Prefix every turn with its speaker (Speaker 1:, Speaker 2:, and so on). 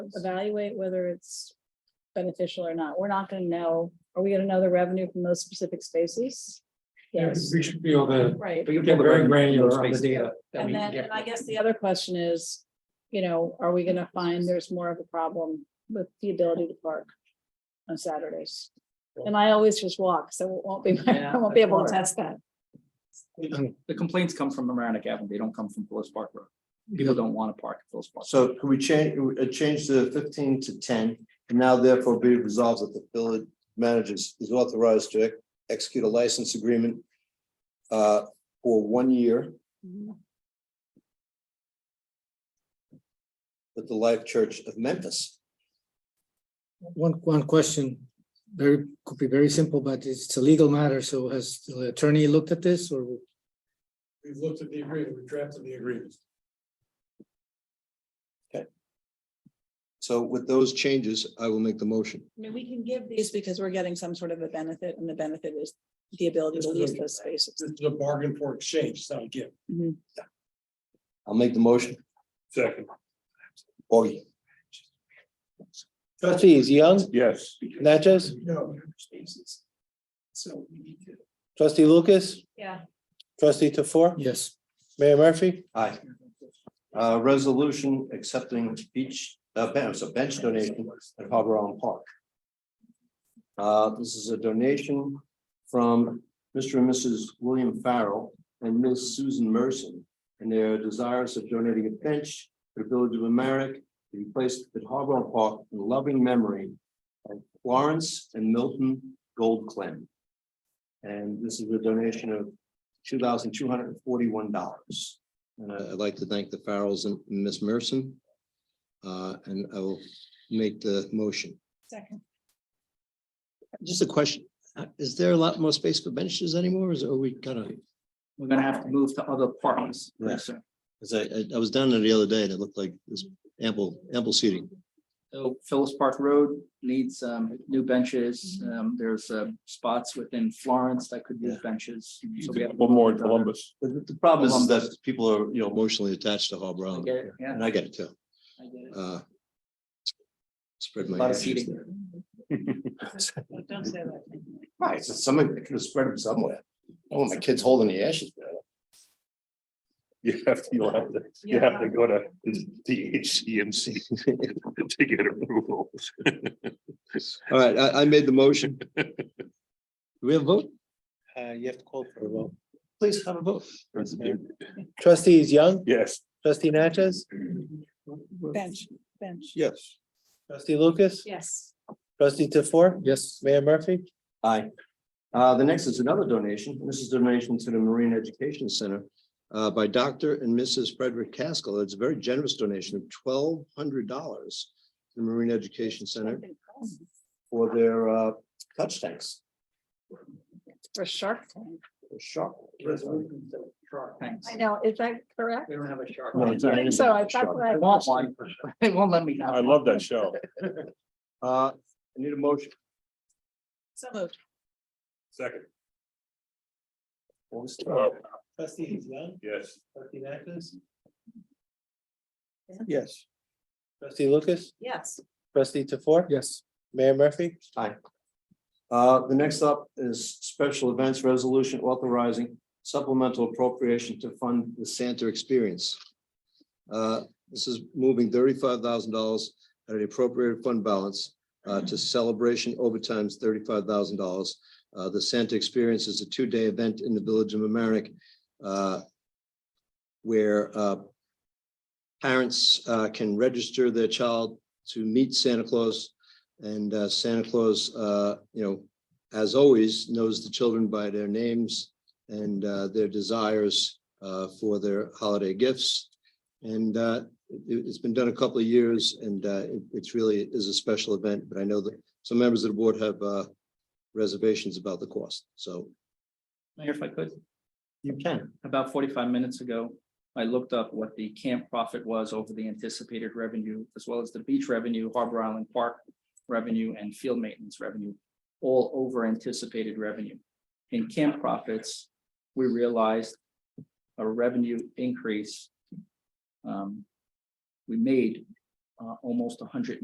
Speaker 1: evaluate whether it's beneficial or not. We're not gonna know, are we gonna know the revenue from those specific spaces? Yes,
Speaker 2: We should be able to
Speaker 1: right.
Speaker 3: But you
Speaker 2: get
Speaker 3: pull the
Speaker 2: very
Speaker 3: revenue
Speaker 2: granular
Speaker 3: from
Speaker 2: on the
Speaker 3: spaces.
Speaker 2: data. that
Speaker 1: And
Speaker 2: we can
Speaker 1: then,
Speaker 2: get.
Speaker 1: and I guess the other question is, you know, are we gonna find there's more of a problem with the ability to park on Saturdays? And I always just walk, so it won't be, I
Speaker 3: Yeah,
Speaker 1: won't be able
Speaker 3: of
Speaker 1: to test that.
Speaker 3: The complaints come from Amerenik Avenue. They don't come from Phyllis Park Road. People don't want to park at Phyllis Park.
Speaker 4: So could we change, uh, change the fifteen to ten, and now therefore be it resolved that the village manager is is authorized to ex- execute a license agreement uh, for one year with the Life Church of Memphis.
Speaker 5: One, one question, very, could be very simple, but it's a legal matter, so has the attorney looked at this or?
Speaker 2: We've looked at the agreement, we drafted the agreement.
Speaker 4: So with those changes, I will make the motion.
Speaker 1: I mean, we can give these because we're getting some sort of a benefit and the benefit is the ability to lease those spaces.
Speaker 2: This is a bargain for exchange, it's not a gift.
Speaker 4: I'll make the motion.
Speaker 2: Second.
Speaker 4: Augie,
Speaker 6: Trustees Young,
Speaker 2: Yes.
Speaker 6: Natchez,
Speaker 2: No. Spaces. So we need to.
Speaker 6: trustee Lucas,
Speaker 1: Yeah.
Speaker 6: trustee Tofor,
Speaker 5: Yes,
Speaker 6: Mayor Murphy,
Speaker 4: aye. Uh, resolution accepting beach, uh, ben- it was a bench donation at Harbor Island Park. Uh, this is a donation from Mr. and Mrs. William Farrell and Miss Susan Merson. And they are desirous of donating a bench to the Village of Amerik to be placed at Harbor Island Park in loving memory of Florence and Milton Goldclaim. And this is a donation of two thousand two hundred and forty-one dollars. And I- I'd like to thank the Farrells and Miss Merson. Uh, and I will make the motion.
Speaker 1: Second.
Speaker 4: Just a question, uh, is there a lot more space for benches anymore? Is, are we kind of,
Speaker 3: We're gonna have to move to other parks.
Speaker 4: Yeah. as I, I- I was down there the other day and it looked like there's ample, ample seating.
Speaker 3: So Phyllis Park Road needs um new benches. Um, there's uh spots within Florence that could use benches. So we have-
Speaker 7: One more in Columbus.
Speaker 4: But the- the problem is that people are, you know, emotionally attached to Harbor
Speaker 3: I
Speaker 4: Island.
Speaker 3: get it, Yeah.
Speaker 4: And I get it too.
Speaker 3: I get it.
Speaker 4: Uh, Spread
Speaker 3: A
Speaker 4: my.
Speaker 3: lot of
Speaker 4: ashes
Speaker 3: seating.
Speaker 4: there.
Speaker 1: Don't say that.
Speaker 4: Right, so somebody could have spread them somewhere. Oh, my kid's holding the ashes. there.
Speaker 7: You have to, you'll have to, you have to go to DHCMC to get approval.
Speaker 4: All right, I, I made the motion. Do we have a vote?
Speaker 6: uh, you have to call for a vote.
Speaker 4: Please have a vote.
Speaker 6: Trustees Young,
Speaker 7: Yes.
Speaker 6: trustee Natchez,
Speaker 1: Bench, bench.
Speaker 4: Yes.
Speaker 6: trustee Lucas,
Speaker 1: Yes.
Speaker 6: trustee Tofor,
Speaker 5: yes,
Speaker 6: Mayor Murphy.
Speaker 4: Aye. Uh, the next is another donation. This is donation to the Marine Education Center uh, by Dr. and Mrs. Frederick Caskell. It's a very generous donation of twelve hundred dollars to the Marine Education Center for their uh, touch tanks.
Speaker 1: For Shark Tank.
Speaker 4: Shark.
Speaker 3: Thanks.
Speaker 1: I know, is that correct?
Speaker 3: We don't have a shark.
Speaker 4: No, it's not.
Speaker 1: I think So I thought
Speaker 3: I
Speaker 1: that,
Speaker 3: want one. They won't let me have.
Speaker 7: I love that show.
Speaker 4: Uh, I need a motion.
Speaker 1: so moved.
Speaker 7: Second,
Speaker 4: What was the-
Speaker 7: Oh,
Speaker 6: Trustees Young,
Speaker 7: yes.
Speaker 6: trustee Natchez.
Speaker 4: Yes.
Speaker 6: Trustee Lucas,
Speaker 1: Yes.
Speaker 6: trustee Tofor,
Speaker 5: yes,
Speaker 6: Mayor Murphy.
Speaker 4: Uh, the next up is special events resolution authorizing supplemental appropriation to fund the Santa experience. Uh, this is moving thirty-five thousand dollars at an appropriated fund balance uh, to celebration overtime's thirty-five thousand dollars. Uh, the Santa experience is a two-day event in the Village of Amerenik, uh, where uh, parents uh, can register their child to meet Santa Claus and uh, Santa Claus, uh, you know, as always, knows the children by their names and uh, their desires uh, for their holiday gifts. And uh, it, has been done a couple of years and uh, it- it's really is a special event, but I know that some members of the board have uh, reservations about the cost, so.
Speaker 3: Mayor, if I could.
Speaker 4: You can.
Speaker 3: about forty-five minutes ago, I looked up what the camp profit was over the anticipated revenue, as well as the beach revenue, Harbor Island Park revenue, and field maintenance revenue, all over anticipated revenue. In camp profits, we realized a revenue increase. um, We made uh, almost 180